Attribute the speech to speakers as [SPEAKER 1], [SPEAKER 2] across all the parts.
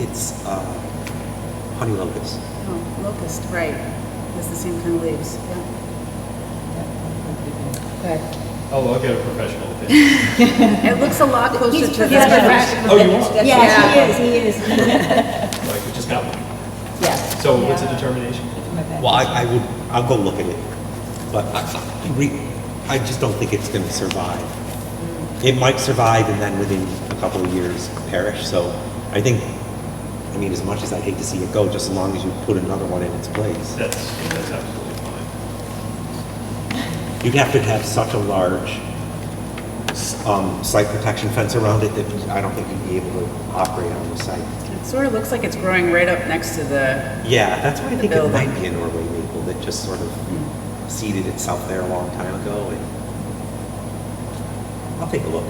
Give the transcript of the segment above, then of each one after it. [SPEAKER 1] it's uh, honey locust.
[SPEAKER 2] Oh, locust, right. It's the same kind of leaves, yeah.
[SPEAKER 3] Oh, I'll get a professional opinion.
[SPEAKER 2] It looks a lot closer to the...
[SPEAKER 4] He's professional.
[SPEAKER 3] Oh, you want?
[SPEAKER 4] Yeah, he is, he is.
[SPEAKER 3] Like, we just got one.
[SPEAKER 4] Yes.
[SPEAKER 3] So what's the determination?
[SPEAKER 1] Well, I, I would, I'll go look at it, but I, I re- I just don't think it's gonna survive. It might survive and then within a couple of years perish, so I think, I mean, as much as I hate to see it go, just as long as you put another one in its place.
[SPEAKER 3] That's, that's absolutely fine.
[SPEAKER 1] You'd have to have such a large, s- um, site protection fence around it that I don't think you'd be able to operate on the site.
[SPEAKER 2] It sort of looks like it's growing right up next to the,
[SPEAKER 1] Yeah, that's why I think it might
[SPEAKER 2] building.
[SPEAKER 1] be a Norway maple that just sort of seeded itself there a long time ago and I'll take a look.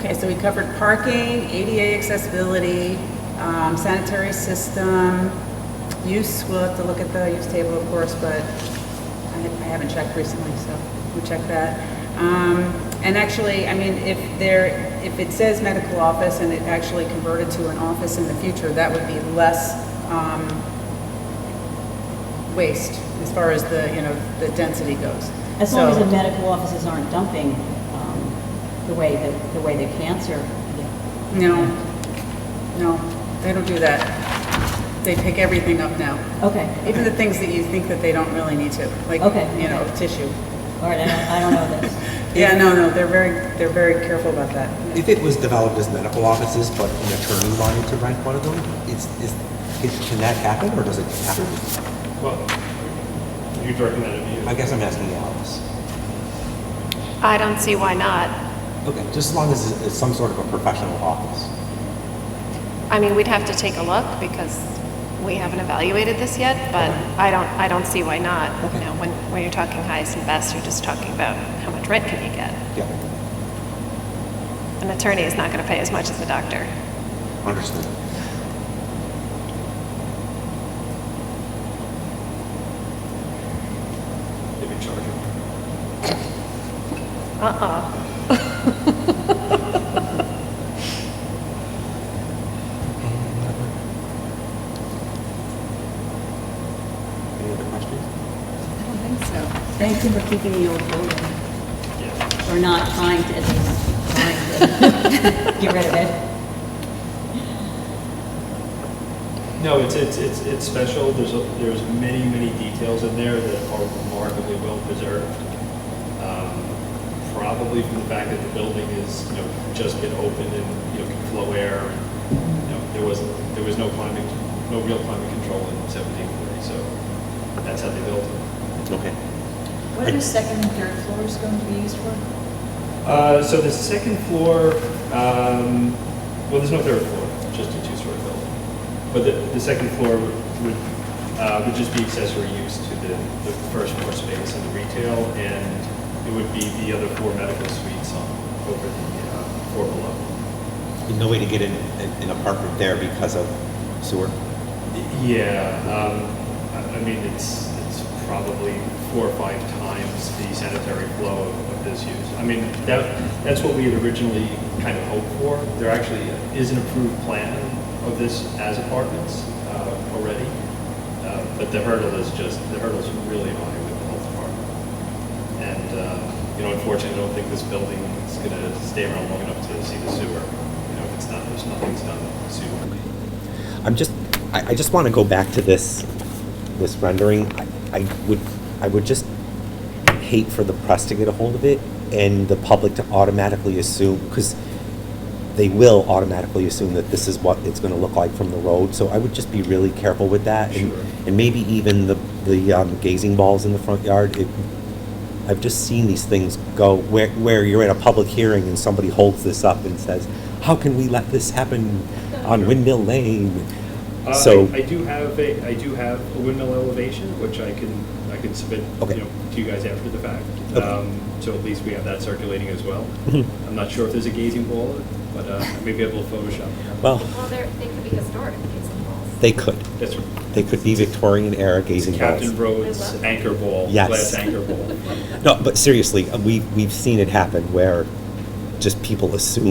[SPEAKER 2] okay, so we covered parking, ADA accessibility, um, sanitary system, use, we'll have to look at the use table, of course, but I ha- I haven't checked recently, so we'll check that. Um, And actually, I mean, if there, if it says medical office and it actually converted to an office in the future, that would be less um, waste as far as the, you know, the density goes.
[SPEAKER 4] As long as
[SPEAKER 2] So-
[SPEAKER 4] the medical offices aren't dumping um, the way that, the way that cancer. yeah.
[SPEAKER 2] No, no, they don't do that. They pick everything up now,
[SPEAKER 4] Okay,
[SPEAKER 2] even the things that you think that they don't really need to, like,
[SPEAKER 4] Okay,
[SPEAKER 2] you know,
[SPEAKER 4] okay.
[SPEAKER 2] tissue.
[SPEAKER 4] all right, I don't- I don't know this.
[SPEAKER 2] Yeah, no, no, they're very, they're very careful about that.
[SPEAKER 1] If it was developed as medical offices, but an attorney wanted to rent one of them, is, is, is- can that happen or does it happen?
[SPEAKER 3] Well, you'd recommend it to you.
[SPEAKER 1] I guess I'm asking Alice.
[SPEAKER 5] I don't see why not.
[SPEAKER 1] Okay, just as long as it's- it's some sort of a professional office.
[SPEAKER 5] I mean, we'd have to take a look because we haven't evaluated this yet, but I don't, I don't see why not. You know, when, when you're talking highest and best, you're just talking about how much rent can you get.
[SPEAKER 1] Yeah,
[SPEAKER 5] An attorney is not going to pay as much as a doctor.
[SPEAKER 1] understood.
[SPEAKER 3] Maybe charge it.
[SPEAKER 5] Uh-uh.
[SPEAKER 1] Any other questions?
[SPEAKER 4] Thank you for keeping the old building,
[SPEAKER 3] Yeah.
[SPEAKER 4] or not trying to, at least, trying to get rid of it.
[SPEAKER 3] No, it's, it's, it's, it's special. There's, a- there's many, many details in there that are remarkably well preserved. Um, Probably from the fact that the building is, you know, just been opened and, you know, can flow air. and, You know, there was, there was no climate, no real climate control in seventeen forty, so that's how they built it.
[SPEAKER 1] Okay.
[SPEAKER 6] What are the second and third floors going to be used for?
[SPEAKER 3] Uh, So the second floor, um, well, there's no third floor, just a two-story building. But the, the second floor would, uh, would just be accessory use to the, the first floor space and the retail, and it would be the other four medical suites on, over the uh, floor below.
[SPEAKER 1] No way to get an, an an apartment there because of sewer?
[SPEAKER 3] Yeah, um, I I mean, it's, it's probably four or five times the sanitary flow of of this use. I mean, that, that's what we had originally kind of hoped for. There actually is an approved plan of this as apartments uh, already, Uh, but the hurdle is just, the hurdle's really high with the health department. And, uh, you know, unfortunately, I don't think this building is going to stay around long enough to see the sewer. You know, if it's not, there's nothing's done with the sewer.
[SPEAKER 1] I'm just, I, I just want to go back to this, this rendering. I, I would, I would just hate for the press to get a hold of it and the public to automatically assume, because they will automatically assume that this is what it's going to look like from the road. So I would just be really careful with that. and-
[SPEAKER 3] Sure.
[SPEAKER 1] And maybe even the, the um, gazing balls in the front yard. It, I've just seen these things go where, where you're at a public hearing and somebody holds this up and says, how can we let this happen on Windmill Lane?
[SPEAKER 3] Uh,
[SPEAKER 1] So,
[SPEAKER 3] I I do have a, I do have a windmill elevation, which I can, I can submit,
[SPEAKER 1] Okay.
[SPEAKER 3] you know, to you guys after the fact.
[SPEAKER 1] Okay.
[SPEAKER 3] Um, So at least we have that circulating as well.
[SPEAKER 1] Mhm.
[SPEAKER 3] I'm not sure if there's a gazing ball, but uh, I may be able to Photoshop. that.
[SPEAKER 1] well,
[SPEAKER 5] Well, they they could be historic, these balls.
[SPEAKER 1] they could.
[SPEAKER 3] That's
[SPEAKER 1] They could be Victorian era gazing
[SPEAKER 3] Captain
[SPEAKER 1] balls.
[SPEAKER 3] Rhodes
[SPEAKER 5] I love it.
[SPEAKER 3] anchor ball,
[SPEAKER 1] Yes.
[SPEAKER 3] glass anchor ball.
[SPEAKER 1] No, but seriously, uh, we, we've seen it happen where just people assume